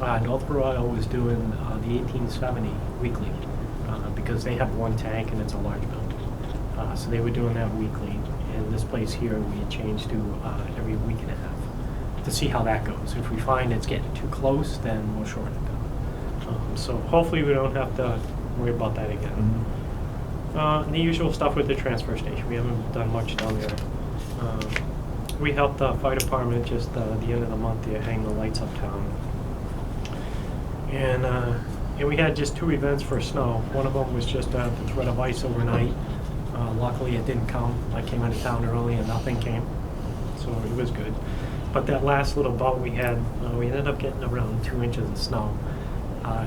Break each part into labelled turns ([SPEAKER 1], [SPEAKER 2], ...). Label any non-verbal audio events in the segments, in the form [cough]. [SPEAKER 1] Uh, Northborough I was doing uh, the 1870 weekly uh, because they have one tank and it's a large building. Uh, so they were doing that weekly. And this place here we had changed to uh, every week and a half to see how that goes. If we find it's getting too close, then we'll shorten it down. Um, so hopefully we don't have to worry about that again.
[SPEAKER 2] Mm-hmm.
[SPEAKER 3] Mm-hmm.
[SPEAKER 1] Uh, the usual stuff with the transfer station. We haven't done much down there. Um, we helped the fire department just uh, the end of the month to hang the lights uptown. And, uh, and we had just two events for snow. One of them was just uh, the threat of ice overnight. Uh, luckily, it didn't come. I came out of town early and nothing came, so it was good. But that last little bout we had, uh, we ended up getting around two inches of snow. Uh,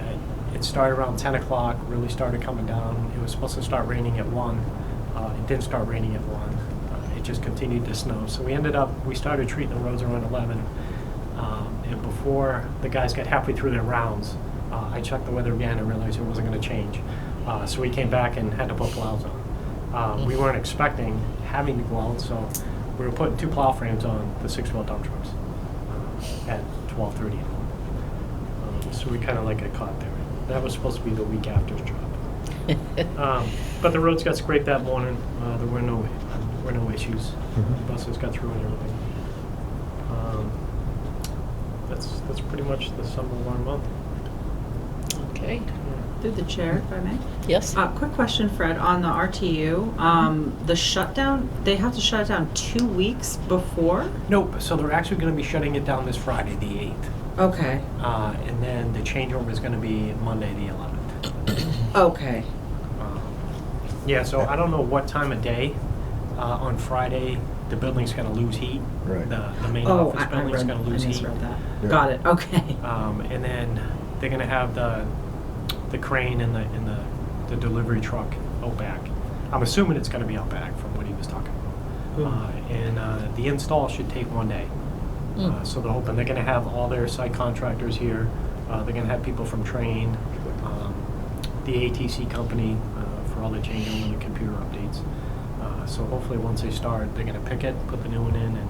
[SPEAKER 1] It started around 10 o'clock, really started coming down. It was supposed to start raining at 1. Uh, It didn't start raining at 1. Uh, It just continued to snow. So we ended up, we started treating the roads around 11. Um, And before the guys got halfway through their rounds, uh, I checked the weather again and realized it wasn't going to change. Uh, So we came back and had to put plows on. Uh, We weren't expecting having to go out, so we were putting two plow frames on the six-wheel dump trucks uh, at 12:30 in the morning. Um, So we kind of like got caught there. That was supposed to be the week after's job. [laughs] Um, But the roads got scraped that morning. Uh, There were no, were no issues.
[SPEAKER 2] Mhm.
[SPEAKER 1] Buses got through and everything. Um, That's, that's pretty much the sum of our month.
[SPEAKER 3] Okay,
[SPEAKER 4] Through the chair, if I may.
[SPEAKER 3] yes?
[SPEAKER 4] Uh, quick question, Fred, on the RTU. Um, the shutdown, they have to shut it down two weeks before?
[SPEAKER 1] Nope, so they're actually going to be shutting it down this Friday, the 8th.
[SPEAKER 4] Okay,
[SPEAKER 1] Uh, And then the changeover is going to be Monday, the 11th.
[SPEAKER 4] okay.
[SPEAKER 1] Um, Yeah, so I don't know what time of day. Uh, On Friday, the building's going to lose heat.
[SPEAKER 2] Right.
[SPEAKER 1] The the main
[SPEAKER 4] Oh,
[SPEAKER 1] office
[SPEAKER 4] I, I
[SPEAKER 1] building's
[SPEAKER 4] read,
[SPEAKER 1] going
[SPEAKER 4] I
[SPEAKER 1] to lose heat.
[SPEAKER 4] misread
[SPEAKER 2] Yeah.
[SPEAKER 4] that. Got
[SPEAKER 1] [laughs]
[SPEAKER 4] it, okay.
[SPEAKER 1] Um, and then they're gonna have the, the crane and the, and the, the delivery truck out back. I'm assuming it's gonna be out back from what he was talking
[SPEAKER 4] Hmm.
[SPEAKER 1] about. Uh, and, uh, the install should take one day.
[SPEAKER 3] Hmm.
[SPEAKER 1] Uh, so they're hoping, they're gonna have all their site contractors here, uh, they're gonna have people from Train, um, the ATC company, uh, for all the changeover and the computer updates. Uh, so hopefully, once they start, they're gonna pick it, put the new one in, and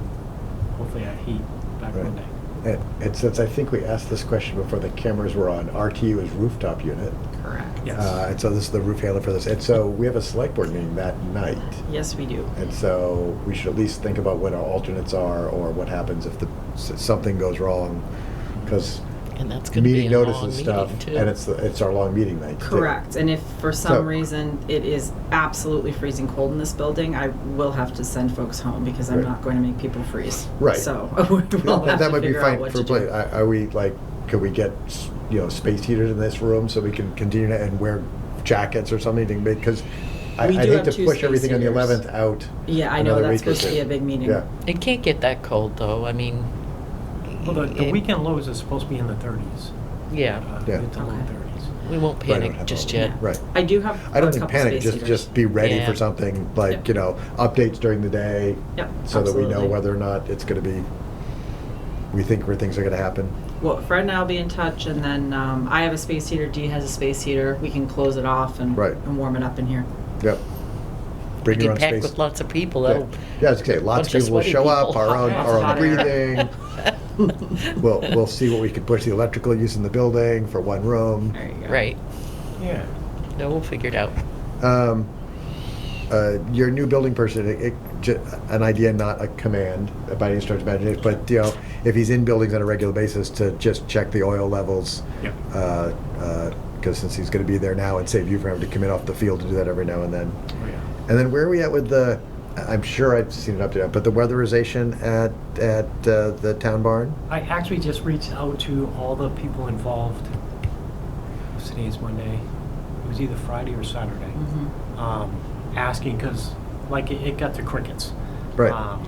[SPEAKER 1] hopefully at heat back
[SPEAKER 2] Right.
[SPEAKER 1] Monday.
[SPEAKER 2] And, and since I think we asked this question before the cameras were on, RTU is rooftop unit.
[SPEAKER 4] Correct.
[SPEAKER 1] Yes.
[SPEAKER 2] Uh, and so this is the roof handler for this. And so we have a select board meeting that night.
[SPEAKER 4] Yes, we do.
[SPEAKER 2] And so we should at least think about what our alternates are or what happens if the, s- something goes wrong. Because
[SPEAKER 3] And that's gonna be
[SPEAKER 2] meeting
[SPEAKER 3] a
[SPEAKER 2] notice
[SPEAKER 3] long
[SPEAKER 2] and
[SPEAKER 3] meeting
[SPEAKER 2] stuff,
[SPEAKER 3] too.
[SPEAKER 2] and it's, the- it's our long meeting night. too.
[SPEAKER 4] Correct, and if for
[SPEAKER 2] So-
[SPEAKER 4] some reason it is absolutely freezing cold in this building, I will have to send folks home because I'm
[SPEAKER 2] Right.
[SPEAKER 4] not going to make people freeze.
[SPEAKER 2] Right.
[SPEAKER 4] So [laughs] we'll have
[SPEAKER 2] No, but
[SPEAKER 4] to
[SPEAKER 2] That might be
[SPEAKER 4] figure out
[SPEAKER 2] fine
[SPEAKER 4] what
[SPEAKER 2] for,
[SPEAKER 4] to
[SPEAKER 2] play.
[SPEAKER 4] do.
[SPEAKER 2] are are we, like, could we get, s- you know, space heaters in this room so we can continue to, and wear jackets or something? Because I- I'd
[SPEAKER 4] We do
[SPEAKER 2] hate
[SPEAKER 4] have
[SPEAKER 2] to
[SPEAKER 4] two
[SPEAKER 2] push
[SPEAKER 4] space
[SPEAKER 2] everything on the
[SPEAKER 4] heaters.
[SPEAKER 2] 11th out.
[SPEAKER 4] Yeah, I know,
[SPEAKER 2] another
[SPEAKER 4] that's
[SPEAKER 2] week or
[SPEAKER 4] supposed to be
[SPEAKER 2] two.
[SPEAKER 4] a big meeting.
[SPEAKER 2] Yeah,
[SPEAKER 3] It can't get that cold though, I mean.
[SPEAKER 1] Well, the, the
[SPEAKER 3] it-
[SPEAKER 1] weekend lows is supposed to be in the thirties,
[SPEAKER 3] Yeah,
[SPEAKER 1] uh,
[SPEAKER 2] Yeah.
[SPEAKER 1] mid to low
[SPEAKER 4] Okay.
[SPEAKER 1] thirties.
[SPEAKER 3] we won't
[SPEAKER 2] Right, I don't
[SPEAKER 3] panic
[SPEAKER 2] have
[SPEAKER 3] just
[SPEAKER 2] all-
[SPEAKER 3] yet.
[SPEAKER 4] Yeah.
[SPEAKER 2] right.
[SPEAKER 4] I do have
[SPEAKER 2] I
[SPEAKER 4] a
[SPEAKER 2] don't think
[SPEAKER 4] couple
[SPEAKER 2] panic,
[SPEAKER 4] space
[SPEAKER 2] just,
[SPEAKER 4] heaters.
[SPEAKER 2] just be ready
[SPEAKER 3] Yeah.
[SPEAKER 2] for something, like,
[SPEAKER 4] Yep.
[SPEAKER 2] you know, updates during the day,
[SPEAKER 4] Yep,
[SPEAKER 2] so that we know
[SPEAKER 4] absolutely.
[SPEAKER 2] whether or not it's gonna be, we think where things are gonna happen.
[SPEAKER 4] Well, Fred and I'll be in touch, and then um, I have a space heater. Dee has a space heater. We can close it off and
[SPEAKER 2] Right.
[SPEAKER 4] and warm it up in here.
[SPEAKER 2] Yep.
[SPEAKER 3] We
[SPEAKER 2] Bring your
[SPEAKER 3] can
[SPEAKER 2] own
[SPEAKER 3] pack
[SPEAKER 2] space.
[SPEAKER 3] with lots of people,
[SPEAKER 2] Yeah,
[SPEAKER 3] that'll.
[SPEAKER 2] Yeah, I was gonna say, lots
[SPEAKER 3] bunch
[SPEAKER 2] of people will
[SPEAKER 3] sweaty
[SPEAKER 2] show up,
[SPEAKER 3] people.
[SPEAKER 2] our
[SPEAKER 3] [laughs]
[SPEAKER 2] own,
[SPEAKER 4] Lots
[SPEAKER 2] our
[SPEAKER 4] of
[SPEAKER 2] own
[SPEAKER 4] hot air.
[SPEAKER 2] breathing. We'll, we'll see what we can push the electrical use in the building for one room.
[SPEAKER 4] There you go.
[SPEAKER 3] Right,
[SPEAKER 1] Yeah.
[SPEAKER 3] no, we'll figure it out.
[SPEAKER 2] Um, uh, Your new building person, it- it ju- an idea, not a command by any stretch of imagination, but, you know, if he's in buildings on a regular basis, to just check the oil levels.
[SPEAKER 1] Yep.
[SPEAKER 2] Because since he's gonna be there now, and save you from having to come in off the field to do that every now and then.
[SPEAKER 1] Oh, yeah.
[SPEAKER 2] And then where are we at with the, I- I'm sure I've seen an update, but the weatherization at, at uh, the town barn?
[SPEAKER 1] I actually just reached out to all the people involved. Today's Monday. It was either Friday or Saturday.
[SPEAKER 4] Mhm.
[SPEAKER 1] Um, asking, cause like it, it got to crickets.
[SPEAKER 2] Right.
[SPEAKER 1] Um,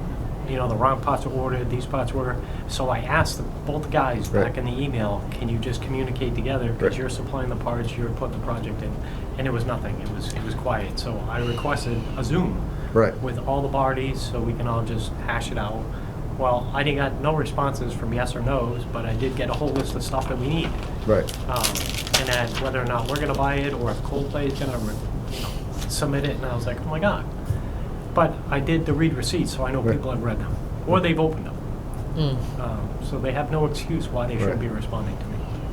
[SPEAKER 1] You know, the wrong parts were ordered, these parts were, so I asked the- both guys back
[SPEAKER 2] Right.
[SPEAKER 1] in the email, can you just communicate together?
[SPEAKER 2] Right.
[SPEAKER 1] Cause you're supplying the parts, you're putting the project in. And it was nothing. It was, it was quiet. So I requested a Zoom.
[SPEAKER 2] Right.
[SPEAKER 1] with all the parties so we can all just hash it out. Well, I didn't got no responses from yes or no's, but I did get a whole list of stuff that we need.
[SPEAKER 2] Right.
[SPEAKER 1] Um, and then whether or not we're gonna buy it or if Coldplay is gonna, you know, submit it, and I was like, oh my god. But I did the read receipts, so I know
[SPEAKER 2] Right.
[SPEAKER 1] people have read them, or they've opened them.
[SPEAKER 3] Mm.
[SPEAKER 1] Uh, Um, so they have no excuse why they
[SPEAKER 2] Right.
[SPEAKER 1] shouldn't be responding to me.